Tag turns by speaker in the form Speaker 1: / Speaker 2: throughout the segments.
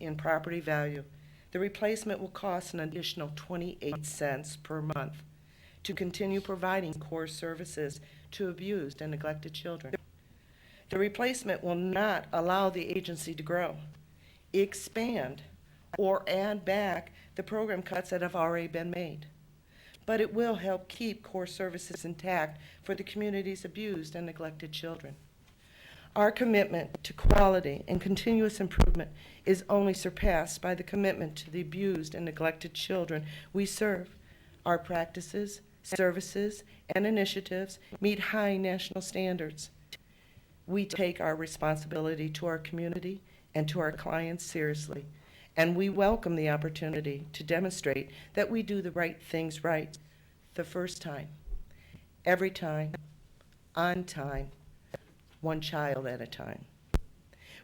Speaker 1: in property value. The replacement will cost an additional 28 cents per month to continue providing core services to abused and neglected children. The replacement will not allow the agency to grow, expand, or add back the program cuts that have already been made. But it will help keep core services intact for the community's abused and neglected children. Our commitment to quality and continuous improvement is only surpassed by the commitment to the abused and neglected children we serve. Our practices, services, and initiatives meet high national standards. We take our responsibility to our community and to our clients seriously, and we welcome the opportunity to demonstrate that we do the right things right the first time, every time, on time, one child at a time.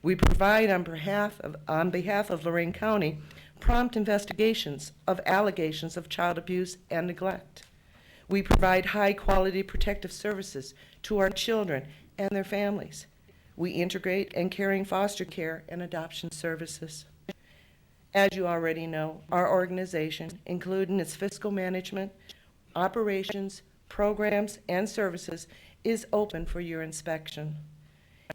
Speaker 1: We provide on behalf of, on behalf of Lorraine County, prompt investigations of allegations of child abuse and neglect. We provide high-quality protective services to our children and their families. We integrate and caring foster care and adoption services. As you already know, our organization, including its fiscal management, operations, programs, and services, is open for your inspection.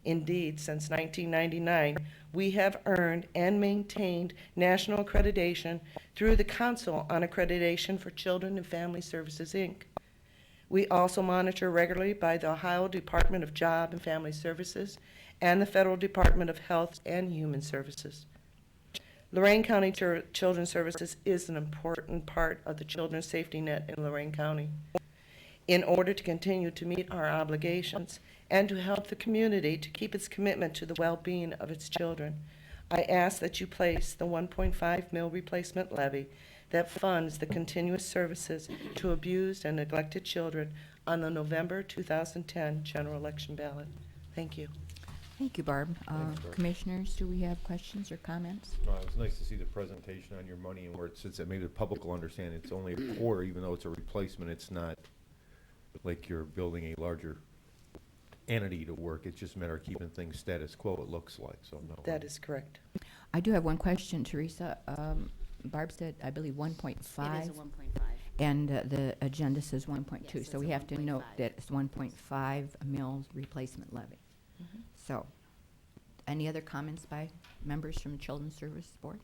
Speaker 1: Indeed, since 1999, we have earned and maintained national accreditation through the Council on Accreditation for Children and Family Services, Inc. We also monitor regularly by the Ohio Department of Job and Family Services and the Federal Department of Health and Human Services. Lorraine County Chir- Children's Services is an important part of the children's safety net in Lorraine County. In order to continue to meet our obligations and to help the community to keep its commitment to the well-being of its children, I ask that you place the 1.5 mil replacement levy that funds the continuous services to abused and neglected children on the November 2010 general election ballot. Thank you.
Speaker 2: Thank you, Barb. Uh,
Speaker 3: Thanks, Barb.
Speaker 2: Commissioners, do we have questions or comments?
Speaker 3: Well, it's Uh, nice to see the presentation on your money and where it sits, that maybe the public will understand it's only a quarter, even though it's a replacement, it's not like you're building a larger entity to work, it's just a matter of keeping things status quo, it looks like, so no.
Speaker 1: That is correct.
Speaker 2: I do have one question, Teresa. Um, Barb said, I believe, 1.5.
Speaker 4: It is a one point five.
Speaker 2: And uh, the agenda says 1.2,
Speaker 4: Yes,
Speaker 2: so
Speaker 4: it's
Speaker 2: we
Speaker 4: a
Speaker 2: have to note
Speaker 4: 1.5.
Speaker 2: that it's 1.5 mills replacement levy. So, any other comments by members from Children's Service Board?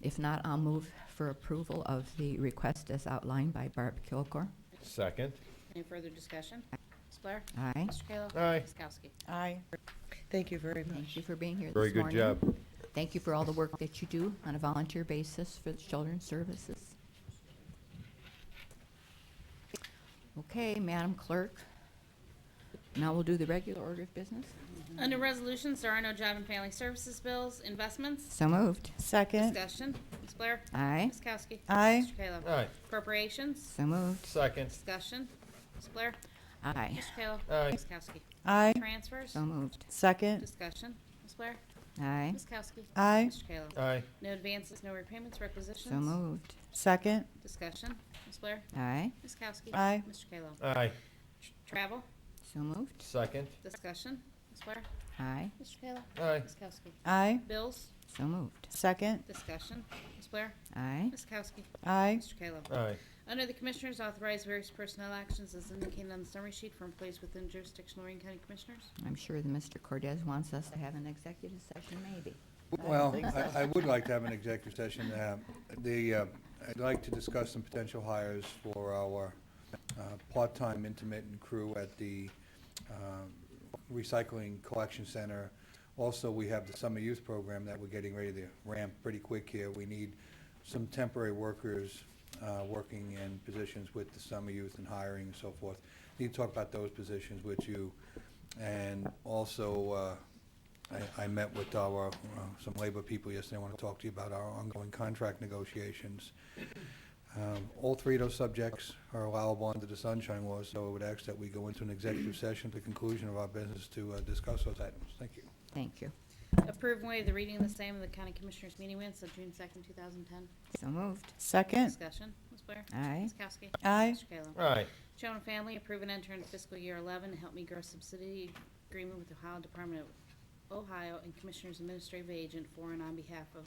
Speaker 2: If not, I'll move for approval of the request as outlined by Barb Kilgore.
Speaker 3: Second,
Speaker 4: Any further discussion? Ms. Blair?
Speaker 2: Aye.
Speaker 4: Mr. Kayla?
Speaker 3: Aye.
Speaker 4: Ms. Kowski?
Speaker 5: Aye.
Speaker 1: Thank you very much.
Speaker 2: Thank you for being here this
Speaker 3: very
Speaker 2: morning.
Speaker 3: good job.
Speaker 2: Thank you for all the work that you do on a volunteer basis for the Children's Services. Okay, Madam Clerk. Now we'll do the regular order of business.
Speaker 4: Under resolutions, there are no job and family services bills, investments,
Speaker 2: So moved.
Speaker 5: Second.
Speaker 4: discussion. Ms. Blair?
Speaker 2: Aye.
Speaker 4: Ms. Kowski?
Speaker 5: Aye.
Speaker 4: Mr. Kayla?
Speaker 3: Aye.
Speaker 4: Appropriations,
Speaker 2: So moved.
Speaker 3: Second,
Speaker 4: discussion. Ms. Blair?
Speaker 2: Aye.
Speaker 4: Mr. Kayla?
Speaker 3: Aye.
Speaker 4: Ms. Kowski?
Speaker 5: Aye.
Speaker 4: Transfers,
Speaker 2: So moved.
Speaker 5: Second.
Speaker 4: discussion. Ms. Blair?
Speaker 2: Aye.
Speaker 4: Ms. Kowski?
Speaker 5: Aye.
Speaker 4: Mr. Kayla?
Speaker 3: aye,
Speaker 4: No advances, no repayments, requisitions.
Speaker 2: So moved.
Speaker 5: Second.
Speaker 4: Discussion. Ms. Blair?
Speaker 2: Aye.
Speaker 4: Ms. Kowski?
Speaker 5: Aye.
Speaker 4: Mr. Kayla?
Speaker 3: aye,
Speaker 4: Travel,
Speaker 2: So moved.
Speaker 3: second,
Speaker 4: discussion. Ms. Blair?
Speaker 2: Aye.
Speaker 4: Mr. Kayla?
Speaker 3: aye,
Speaker 4: Ms. Kowski?
Speaker 5: Aye.
Speaker 4: Bills,
Speaker 2: So moved.
Speaker 5: Second.
Speaker 4: discussion. Ms. Blair?
Speaker 2: Aye.
Speaker 4: Ms. Kowski?
Speaker 5: Aye.
Speaker 4: Mr. Kayla.
Speaker 3: aye,
Speaker 4: Under the Commissioners, authorize various personnel actions as indicated on the summary sheet for employees within jurisdiction of Lorraine County Commissioners.
Speaker 2: I'm sure that Mr. Cordes wants us to have an executive session, maybe.
Speaker 6: Well, I- I would like to have an executive session. Uh, The, uh, I'd like to discuss some potential hires for our uh, part-time intermittent crew at the um, recycling collection center. Also, we have the summer youth program that we're getting ready to ramp pretty quick here. We need some temporary workers uh, working in positions with the summer youth and hiring and so forth. Need to talk about those positions with you. And also, uh, I, I met with our, uh, some labor people yesterday, I want to talk to you about our ongoing contract negotiations. Um, All three of those subjects are allowable under the sunshine law, so I would ask that we go into an executive session at the conclusion of our business to uh, discuss those items. Thank you.
Speaker 2: Thank you.
Speaker 4: Approve and waive the reading of the same in the County Commissioners meeting minutes of June 2nd, 2010.
Speaker 2: So moved.
Speaker 5: Second.
Speaker 4: Discussion. Ms. Blair?
Speaker 2: Aye.
Speaker 4: Ms. Kowski?
Speaker 5: Aye.
Speaker 4: Mr. Kayla?
Speaker 3: aye,
Speaker 4: Children and Family, approve and enter into fiscal year 11 to help me grow subsidy agreement with the Ohio Department of Ohio, and Commissioners Administrative Agent for and on behalf of